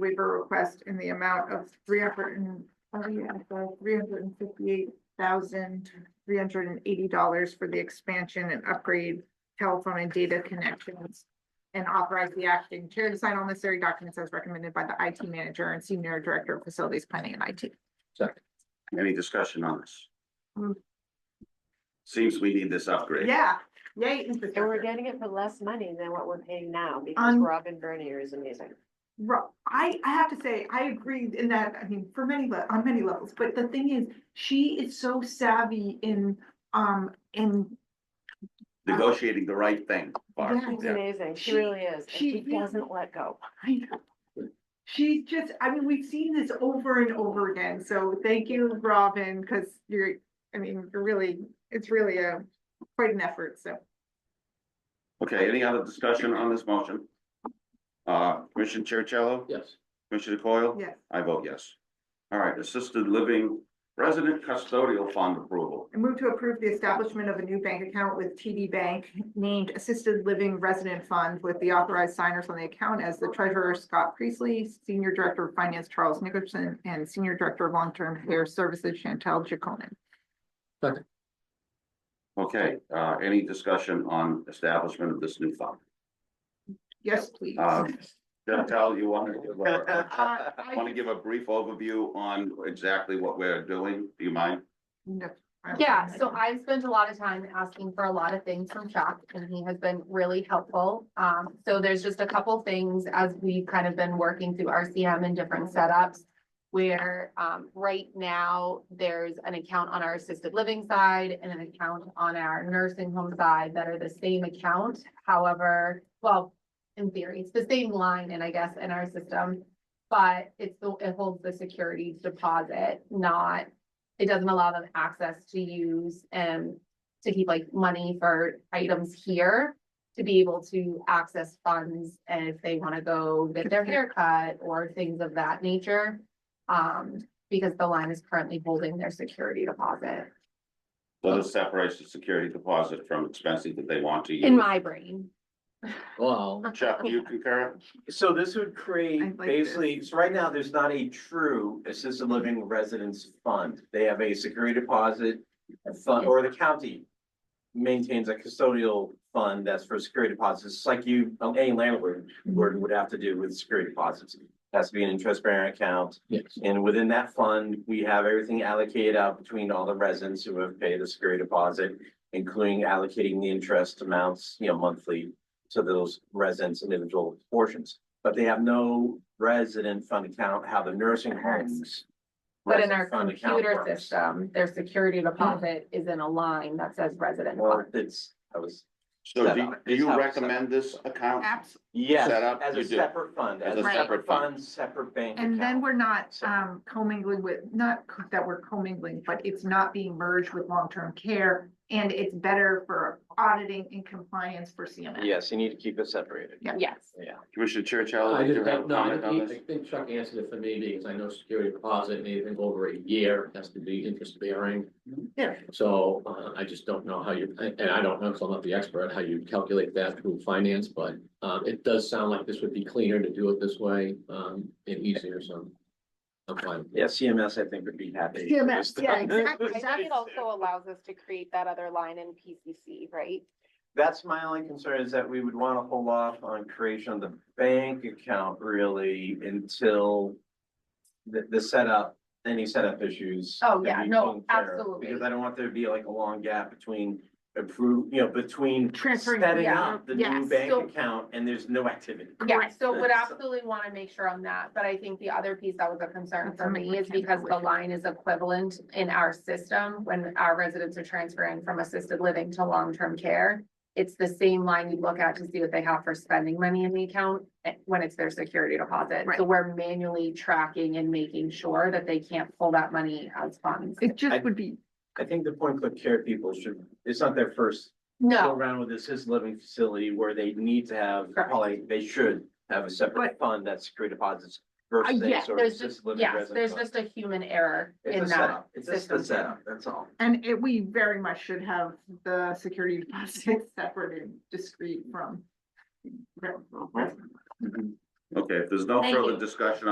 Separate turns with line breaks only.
waiver request in the amount of three hundred and, oh yeah, three hundred and fifty-eight thousand, three hundred and eighty dollars for the expansion and upgrade telephone and data connections. And authorize the acting chair to sign all necessary documents as recommended by the IT manager and senior director of facilities planning and IT.
Any discussion on this?
Hmm.
Seems we need this upgrade.
Yeah, yay.
And
infrastructure.
we're getting it for less money than what we're paying now because
Um,
Robin Bernier is amazing.
Ro- I, I have to say, I agree in that, I mean, for many, le- on many levels, but the thing is, she is so savvy in, um, in
Negotiating the right thing. Barb.
Yeah.
She's
Yeah.
amazing.
She-
She really is. And
she
she
really-
doesn't let go.
I know. She's just, I mean, we've seen this over and over again, so thank you, Robin, because you're, I mean, you're really, it's really a, quite an effort, so.
Okay, any other discussion on this motion? Uh, Commissioner Chercello?
Yes.
Commissioner Coyle?
Yes,
I vote yes. All right, assisted living resident custodial fund approval.
I move to approve the establishment of a new bank account with TD Bank named Assisted Living Resident Fund with the authorized signers on the account as the treasurer Scott Priestley, Senior Director of Finance Charles Nickerson, and Senior Director of Long-Term Care Services Chantel Jaconin.
Okay, uh, any discussion on establishment of this new fund?
Yes, please.
Uh, Chantel, you want to give a,
Uh, I-
want to give a brief overview on exactly what we're doing? Do you mind?
No, I-
Yeah, so I've spent a lot of time asking for a lot of things from Chuck and he has been really helpful. Um, so there's just a couple things as we've kind of been working through RCM and different setups. Where, um, right now, there's an account on our assisted living side and an account on our nursing home side that are the same account. However, well, in theory, it's the same line and I guess in our system. But it's the, it holds the security deposit, not it doesn't allow them access to use and to keep like money for items here. To be able to access funds and if they wanna go get their haircut or things of that nature. Um, because the line is currently holding their security deposit,
So this separates the security deposit from expenses that they want to use.
in my brain.
Wow.
Chuck, do you concur?
So this
I
would
like
create
this.
basically, so right now, there's not a true assisted living residence fund. They have a security deposit fund, or the county maintains a custodial fund that's for security deposits, It's like you, um, any landlord would would have to do with security deposits. Has to be an interest bearing account,
Yes.
and within that fund, we have everything allocated out between all the residents who have paid the security deposit, including allocating the interest amounts, you know, monthly to those residents' individual portions. But they have no resident fund account, how the nursing homes.
But in our
resident fund account
computer
works.
system, their security deposit is in a line that says resident.
Well,
fund.
it's, I was,
So
Set
do,
up.
do you
It's how it's set
recommend this account?
Abs-
yes,
Set up,
as
you
a
do.
separate fund, as a separate fund, separate bank account.
And then we're not
So-
um commingling with, not co- that we're commingling, but it's not being merged with long-term care. And it's better for auditing and compliance for CMS.
Yes, you need to keep it separated.
Yeah.
Yes,
Yeah.
Commissioner Chercello,
I
did you
just,
have a
no, I
comment on
think-
this?
I think Chuck answered it for me because I know security deposit, and anything over a year has to be interest bearing.
Yeah.
So, uh, I just don't know how you, and I don't know, because I'm not the expert, how you calculate that through finance, but, um, it does sound like this would be cleaner to do it this way, um, and easier, so. I'm fine.
Yeah, CMS, I think, would be happy. with
CMS, yeah,
that.
exactly.
I think it also allows us to create that other line in PCC, right?
That's my only concern is that we would want to hold off on creation of the bank account really until the, the setup, any setup issues.
Oh, yeah,
can be
no,
taken care of,
absolutely.
Because I don't want there to be like a long gap between approve, you know, between
Transferring,
setting
yeah,
up the new
yes.
bank
So-
account and there's no activity.
Yeah,
Correct.
so would
So-
absolutely want to make sure on that, but I think the other piece that was a concern
That's
for
something
me
we
is
can't
because
avoid.
the line is equivalent in our system when our residents are transferring from assisted living to long-term care. It's the same line you look at to see what they have for spending money in the account eh, when it's their security deposit.
Right.
So we're manually tracking and making sure that they can't pull that money as funds.
It
I-
just would be,
I think the point click care people should, it's not their first go
No,
around with this assisted living facility where they need to have,
Correct.
probably, they should have a separate fund that's security deposits versus any
yes,
sort of
Uh, there's just,
assisted living
yes,
resident
there's
fund.
just a human error in
It's a
that.
setup, it's just a
system.
setup, that's all.
and it, we very much should have the security deposit separate and discrete from.
Okay, if there's no
Thank
further
you.
discussion